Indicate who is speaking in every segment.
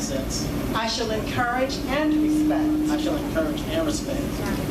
Speaker 1: cents.
Speaker 2: I shall encourage and respect
Speaker 1: I shall encourage and respect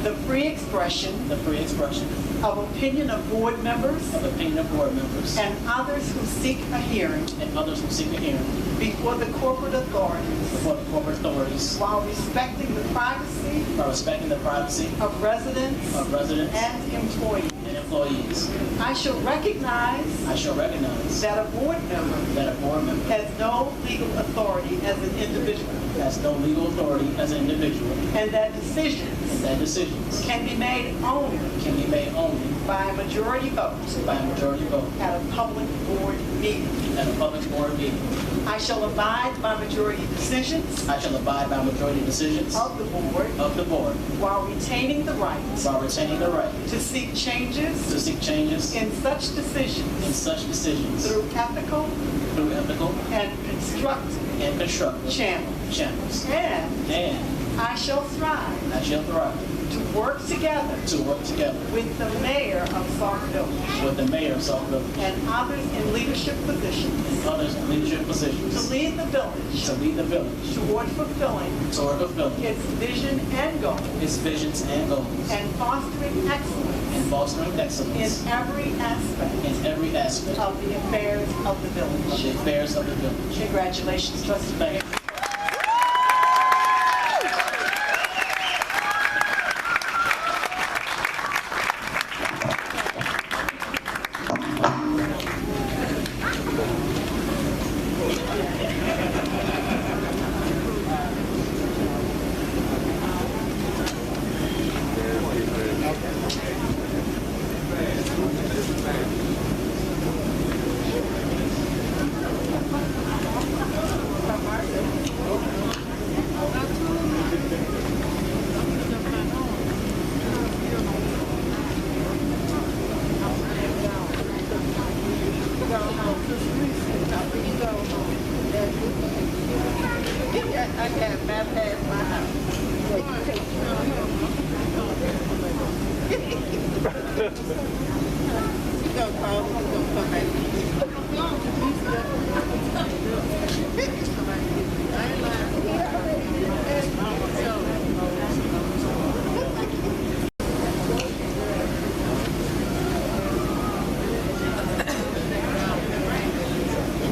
Speaker 2: the free expression
Speaker 1: the free expression
Speaker 2: of opinion of board members
Speaker 1: of opinion of board members
Speaker 2: and others who seek a hearing
Speaker 1: and others who seek a hearing
Speaker 2: before the corporate authorities
Speaker 1: before the corporate authorities
Speaker 2: while respecting the privacy
Speaker 1: by respecting the privacy
Speaker 2: of residents
Speaker 1: of residents
Speaker 2: and employees.
Speaker 1: and employees.
Speaker 2: I shall recognize
Speaker 1: I shall recognize
Speaker 2: that a board member
Speaker 1: that a board member
Speaker 2: has no legal authority as an individual
Speaker 1: has no legal authority as an individual
Speaker 2: and that
Speaker 1: and
Speaker 2: decisions
Speaker 1: that decisions
Speaker 2: can be made only
Speaker 1: can be made only
Speaker 2: by a majority vote
Speaker 1: by a majority vote
Speaker 2: at a public board meeting.
Speaker 1: at a public board meeting.
Speaker 2: I shall abide by majority decisions
Speaker 1: I shall abide by majority decisions
Speaker 2: of the board
Speaker 1: of the board
Speaker 2: while retaining the right
Speaker 1: while retaining the right
Speaker 2: to seek changes
Speaker 1: to seek changes
Speaker 2: in such
Speaker 1: in
Speaker 2: decisions
Speaker 1: such decisions
Speaker 2: through ethical
Speaker 1: through ethical
Speaker 2: and constructive
Speaker 1: and constructive
Speaker 2: channels.
Speaker 1: channels.
Speaker 2: And
Speaker 1: And
Speaker 2: I shall strive
Speaker 1: I shall thrive
Speaker 2: to work together
Speaker 1: to work together
Speaker 2: with the mayor of Sarkville
Speaker 1: with the mayor of South Village
Speaker 2: and others in leadership positions
Speaker 1: and others in leadership
Speaker 2: to
Speaker 1: positions
Speaker 2: lead the village
Speaker 1: to lead the village
Speaker 2: toward fulfilling
Speaker 1: toward fulfilling
Speaker 2: its vision and goals
Speaker 1: its visions and goals
Speaker 2: and fostering
Speaker 1: and
Speaker 2: excellence
Speaker 1: fostering excellence
Speaker 2: in every aspect
Speaker 1: in every aspect of
Speaker 2: of the affairs of the
Speaker 1: the
Speaker 2: village.
Speaker 1: affairs of the village.
Speaker 2: Congratulations, trustee
Speaker 1: Thank you.
Speaker 2: mayor.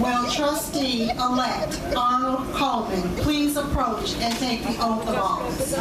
Speaker 3: Will trustee-elect Arnold Coleman please approach and take the oath of office?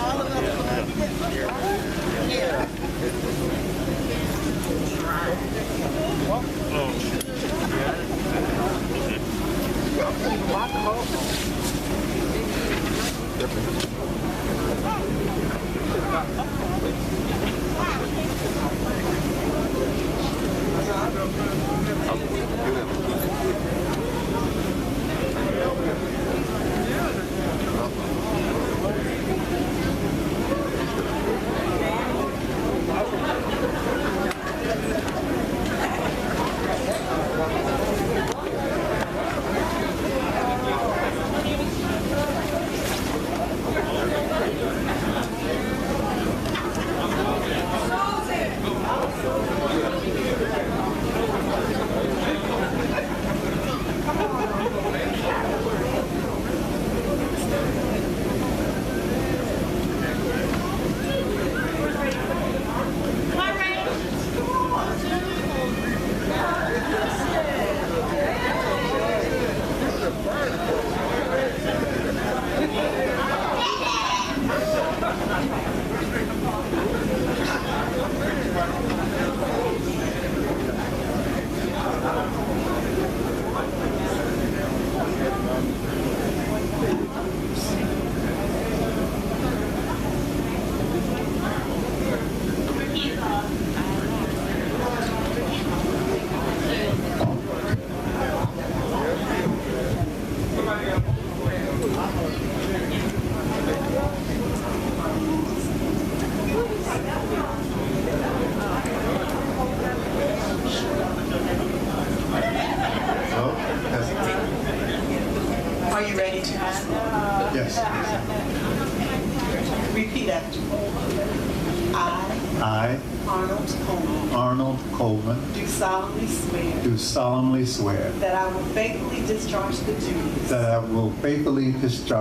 Speaker 4: Oh, yes.
Speaker 2: Are you ready to
Speaker 4: Yes.
Speaker 2: repeat after me? I,
Speaker 4: I,
Speaker 2: Arnold Coleman,
Speaker 4: Arnold Coleman,
Speaker 2: do solemnly swear
Speaker 4: do solemnly swear
Speaker 2: that I will faithfully discharge the duties
Speaker 4: that I will faithfully discharge